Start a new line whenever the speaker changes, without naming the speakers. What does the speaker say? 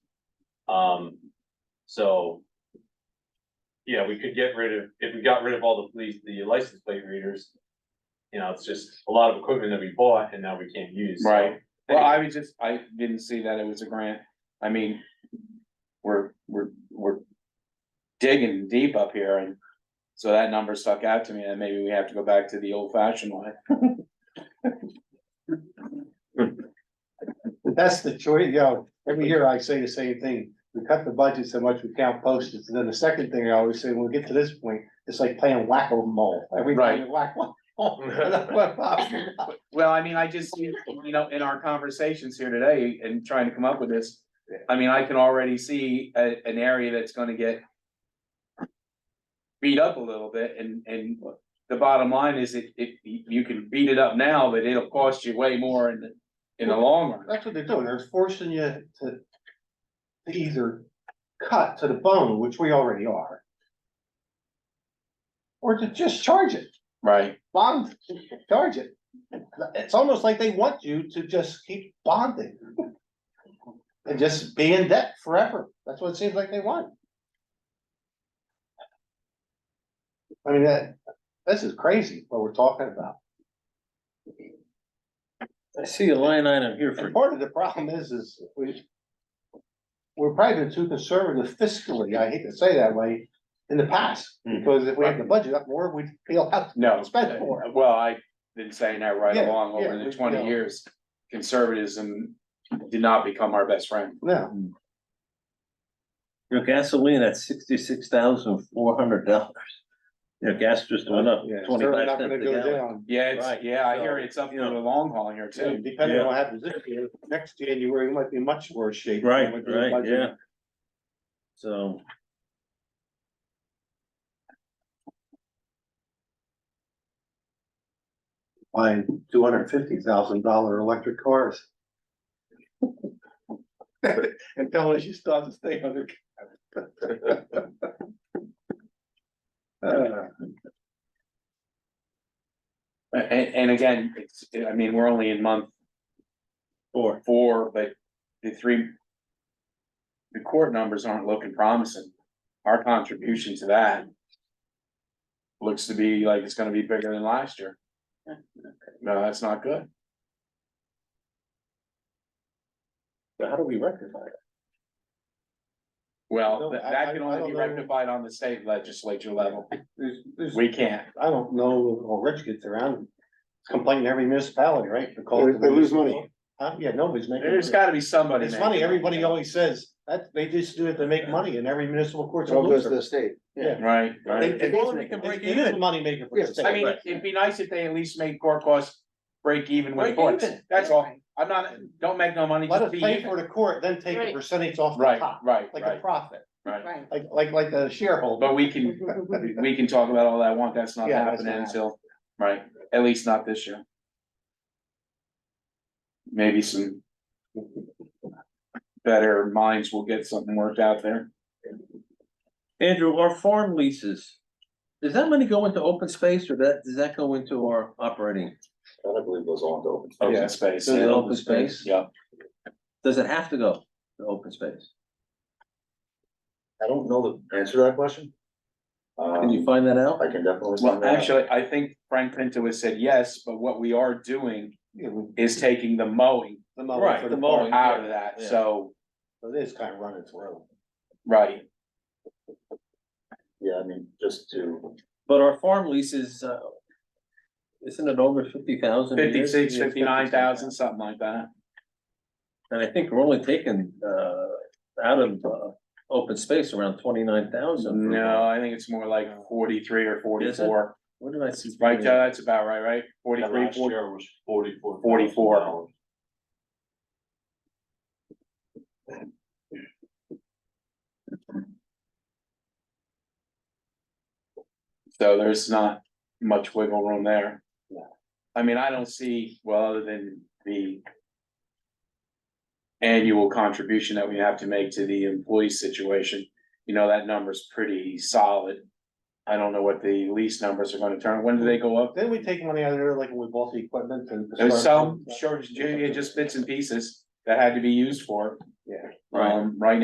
Um, so. Yeah, we could get rid of, if we got rid of all the police, the license plate readers. You know, it's just a lot of equipment that we bought and now we can't use. so-
Right. Well, I was just, I didn't see that it was a grant. I mean, we're, we're, we're digging deep up here and so that number stuck out to me and maybe we have to go back to the old fashioned way.
That's the choice, you know, every year I say the same thing, we cut the budget so much we can't post it, and then the second thing I always say, when we get to this point, it's like playing whack-a-mole, every time you whack one.
Well, I mean, I just, see, you know, in our conversations here today and trying to come up with this, I mean, I can already see a, an area that's gonna get beat up a little bit and, and the bottom line is it, it, you can beat it up now, but it'll cost you way more in, the in the long run.
That's what they're doing, they're forcing you to to either cut to the bone, which we already are. Or to just charge it,
Right.
bond, charge it. It's almost like they want you to just keep bonding. And just be in debt forever, that's what it seems like they want. I mean, that, this is crazy what we're talking about.
I see a line item here for,
And part of the problem is, is we. We're probably been too conservative fiscally, I hate to say that way, in the past,
Hmm.
Mm-hmm.
because if we had the budget up more, we'd feel out.
No,
Spend more.
well, I've been saying that right
Yeah,
along over
yeah,
the
we-
twenty
yeah.
years. Conservatism did not become our best friend.
No,
your gasoline at sixty-six thousand four hundred dollars. Your gas just went up
yeah, certainly
twenty-five
not
cents
gonna
a
go
gallon.
down.
Yeah, it's,
Right,
yeah, I hear
so,
it's up for
you
the
know.
long haul here
So
too.
Depending on
Yeah.
what happens this year, next January, we might be in much worse shape. than
Right,
with the
right,
budget.
yeah. So.
Buying two hundred fifty thousand dollar electric cars. And telling us you still have to stay under. Uh,
And, and again, it's, I mean, we're only in month
Four.
four, but the three. The court numbers aren't looking promising. Our contribution to that. Looks to be like it's gonna be bigger than last year. No, that's not good.
So how do we rectify it?
Well,
No,
that,
I-
that
I-
can
I
only
don't
be
know.
rectified on the state legislature level.
there's- there's-
We can't.
I don't know, how Rich gets around complaining to every municipality, right?
They- they lose money.
Huh? Yeah, nobody's making.
There's gotta be somebody.
It's
making
funny,
it.
everybody always says that they just do it to make money and every municipal court's a
It all goes to
loser.
the state.
Yeah.
Right, right.
It it is money making for the
Yes,
state.
I mean, it'd be nice if they at least made court costs break even with courts. That's all. I'm not, don't make no money,
Let
just
us
be
pay for
even.
the court, then take a
Right.
percentage off the
Right,
top,
right,
like a
right,
profit,
right.
like, like, like a shareholder.
But we can, we can talk about all that I want. That's not
Yeah, that's
happening
not
until, right, at least not this year. Maybe some better minds will get something worked out there.
Andrew, our farm leases, does that money go into open space or that, does that go into our operating?
I believe goes on to open.
Open space.
Does it
yeah.
open space?
Yeah,
Does it have to go to open space?
I don't know the answer to that question.
Can you
Um,
find that out?
I can definitely.
well,
find out.
actually, I think Frank Pinto has said yes, but what we are doing
Yeah, we-
is taking the mowing
the money
Right,
for
the
court.
mowing.
out of that,
Yeah.
so,
So It is kind of running through.
right,
Yeah, I mean, just to,
But our farm leases, uh, isn't it over fifty thousand?
fifty-six, fifty-nine thousand, something like that.
And I think we're only taking, uh, out of, uh, open space around twenty-nine thousand.
No, I think it's more like forty-three or forty-four,
What did I see?
right, uh, Joe, that's about right, right?
That
Forty-three,
last
forty,
year was forty-four.
Forty-four. so there's not much wiggle room there. I mean, I don't see, well, other than the annual contribution that we have to make to the employee situation, you know, that number's pretty solid. I don't know what the lease numbers are gonna turn, when do they go up?
Then we take money out of there, like when we bought the equipment and.
There's some, sure, ju- yeah, just bits and pieces that had to be used for.
Yeah.
Um, right